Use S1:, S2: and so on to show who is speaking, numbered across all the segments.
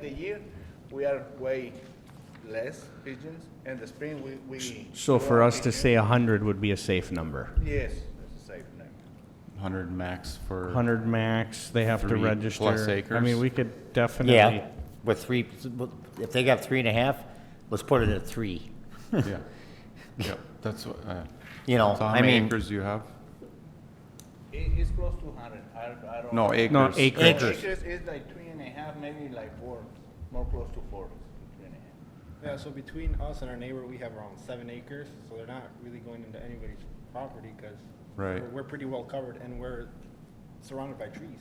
S1: The year, we are way less pigeons, and the spring, we, we.
S2: So for us to say 100 would be a safe number.
S1: Yes, that's a safe number.
S3: 100 max for,
S2: 100 max, they have to
S3: Three
S2: register.
S3: plus
S2: I
S3: acres.
S2: mean, we could definitely,
S4: Yeah, with three, if they got three and a half, let's put it at three,
S3: yeah. Yep, that's what, uh,
S4: you know,
S3: so how
S4: I
S3: many
S4: mean,
S3: acres do you have?
S1: It, it's close to hundred, I, I don't.
S3: No, acres.
S2: no, acreage.
S4: Acres.
S1: Acres is like three and a half, maybe like four, more close to four, three and a half.
S5: Yeah, so between us and our neighbor, we have around seven acres, so they're not really going into anybody's property, because
S3: Right.
S5: we're pretty well covered, and we're surrounded by trees,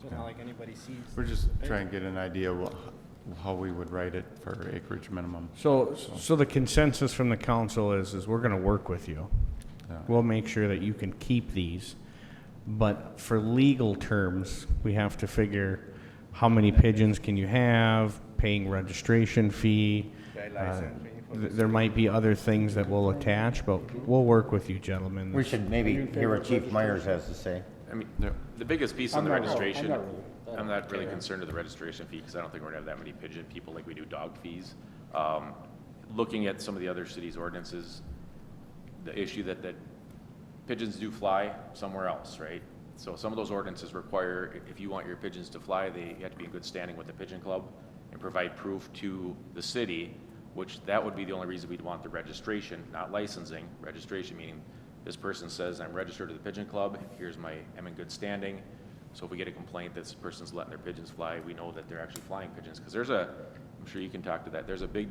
S5: so it's not like anybody sees.
S3: We're just trying to get an idea wha- how we would write it for acreage minimum.
S2: So, so the consensus from the council is, is we're going to work with you.
S3: Yeah.
S2: We'll make sure that you can keep these, but for legal terms, we have to figure how many pigeons can you have, paying registration fee.
S1: Okay,
S2: uh,
S1: license fee for
S2: th- There might be other things that we'll attach, but we'll work with you gentlemen.
S4: we should maybe hear what Chief Myers has to say.
S6: I mean,
S3: Yeah.
S6: the biggest piece on the registration,
S5: not really-
S6: I'm not really concerned with the registration fee, because I don't think we're gonna have that many pigeon people like we do dog fees. Um, Looking at some of the other cities' ordinances, the issue that, that pigeons do fly somewhere else, right? So some of those ordinances require, i- if you want your pigeons to fly, they you have to be in good standing with the pigeon club and provide proof to the city, which that would be the only reason we'd want the registration, not licensing. Registration meaning this person says, I'm registered to the pigeon club, here's my, I'm in good standing. So if we get a complaint that this person's letting their pigeons fly, we know that they're actually flying pigeons. Because there's a, I'm sure you can talk to that, there's a big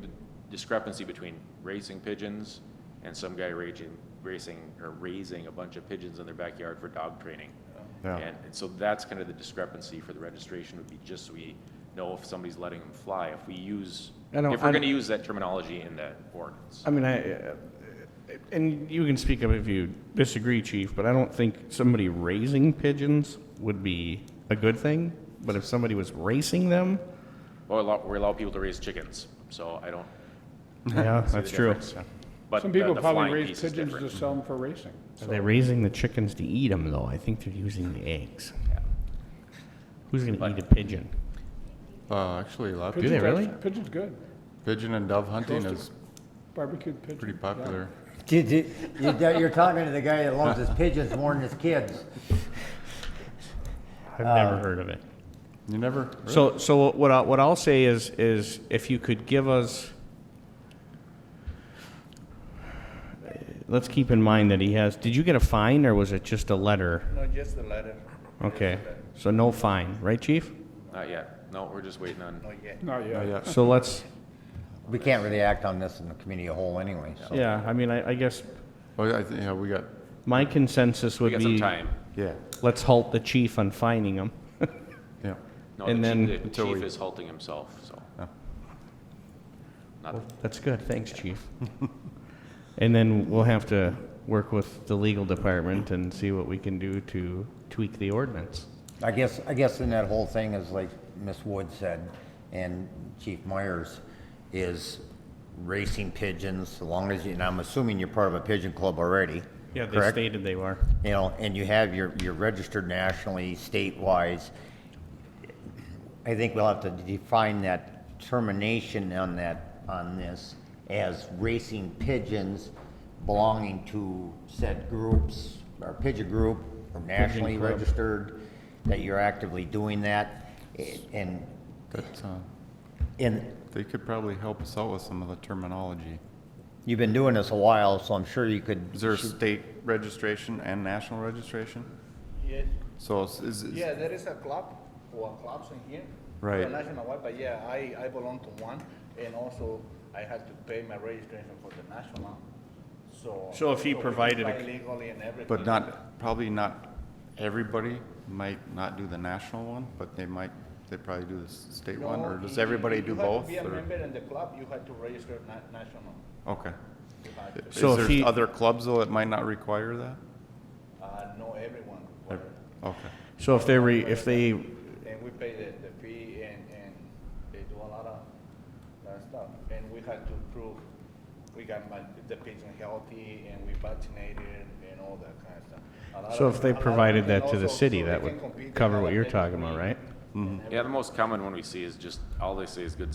S6: discrepancy between racing pigeons and some guy raging, racing, or raising a bunch of pigeons in their backyard for dog training.
S3: Yeah.
S6: And, and so that's kind of the discrepancy for the registration would be just so we know if somebody's letting them fly, if we use,
S2: I don't-
S6: if
S2: I
S6: we're gonna
S2: don't-
S6: use that terminology in that ordinance.
S2: I mean, I, uh, and you can speak up if you disagree, chief, but I don't think somebody raising pigeons would be a good thing. But if somebody was racing them,
S6: Well, we allow, we allow people to raise chickens, so I don't.
S2: yeah,
S6: see the
S2: that's true.
S6: difference. But
S7: Some
S6: the-
S7: people
S6: the
S7: probably
S6: flying
S7: raise
S6: piece is
S7: pigeons
S6: different.
S7: to sell them for racing.
S2: Are they raising the chickens to eat them, though? I think they're using the eggs. Who's going to eat a pigeon?
S3: Uh, Actually, a lot of
S2: Do they
S7: Pigeon's
S2: really?
S7: act- Pigeon's good.
S3: pigeon and dove hunting
S7: Roasted.
S3: is
S7: Barbecued pigeon.
S3: pretty
S7: yeah.
S3: popular.
S4: Did- did- you- that- You're talking to the guy that loves his pigeons more than his kids.
S2: I've
S6: Uh,
S2: never heard of it.
S3: You never, really?
S2: So, so what I, what I'll say is, is if you could give us, let's keep in mind that he has, did you get a fine or was it just a letter?
S1: No, just the letter.
S2: Okay, so no fine, right, chief?
S6: Not yet, no, we're just waiting on,
S1: Not yet.
S7: Not
S3: Oh,
S7: yet.
S3: yeah.
S2: So let's,
S4: We can't really act on this in the community as a whole anyway, so.
S2: yeah, I mean, I, I guess
S3: Well, I thi- Oh, yeah, we got,
S2: my consensus
S6: we
S2: would
S6: got some
S2: be,
S6: time.
S3: yeah,
S2: let's halt the chief on fining him.
S3: yeah.
S6: No,
S2: And
S6: the
S2: then-
S6: chief, the
S3: Until
S6: chief
S3: we-
S6: is halting himself, so.
S3: Oh.
S6: Not,
S2: That's good, thanks, chief. And then we'll have to work with the legal department and see what we can do to tweak the ordinance.
S4: I guess, I guess in that whole thing is like Miss Wood said, and Chief Myers, is racing pigeons, so long as you, and I'm assuming you're part of a pigeon club already,
S2: Yeah, they
S4: correct?
S2: stated they were.
S4: you know, and you have your, you're registered nationally, state-wise, I think we'll have to define that termination on that, on this as racing pigeons belonging to said groups, or pigeon group, or nationally
S2: club.
S4: registered, that you're actively doing that, and,
S3: That's, uh,
S4: and
S3: they could probably help us out with some of the terminology.
S4: you've been doing this a while, so I'm sure you could.
S3: Is there a state registration and national registration?
S1: Yes.
S3: So is- is, is-
S1: Yeah, there is a club, or clubs in here.
S3: Right.
S1: Not Nationwide, but yeah, I, I belong to one, and also I had to pay my registration for the national, so.
S2: So if he
S1: we can
S2: provided a-
S1: fly Legally and everything.
S3: But not, probably not everybody might not do the national one, but they might, they probably do the s- state one,
S1: No,
S3: or
S1: you-
S3: does
S1: you-
S3: everybody do both?
S1: You have to be
S3: or-
S1: a member in the club, you had to register na- national.
S3: Okay.
S1: You had to.
S3: Is
S2: So if he-
S3: there other clubs though that might not require that?
S1: Uh, no, everyone, required.
S3: Okay.
S2: So if they re, if they,
S1: and we pay the, the fee, and, and they do a lot of, lot of stuff. And we had to prove, we got my, the patient healthy, and we vaccinated, and all that kind of stuff. A lot
S2: so
S1: of-
S2: if
S1: a
S2: they
S1: lot of-
S2: provided
S1: and
S2: that to the
S1: also,
S2: city,
S1: so
S2: that
S1: they can compete
S2: would
S1: with
S2: cover
S1: other
S2: what you're
S1: things
S2: talking about,
S1: we-
S2: right? Mm-hmm.
S6: Yeah, the most common one we see is just, all they say is good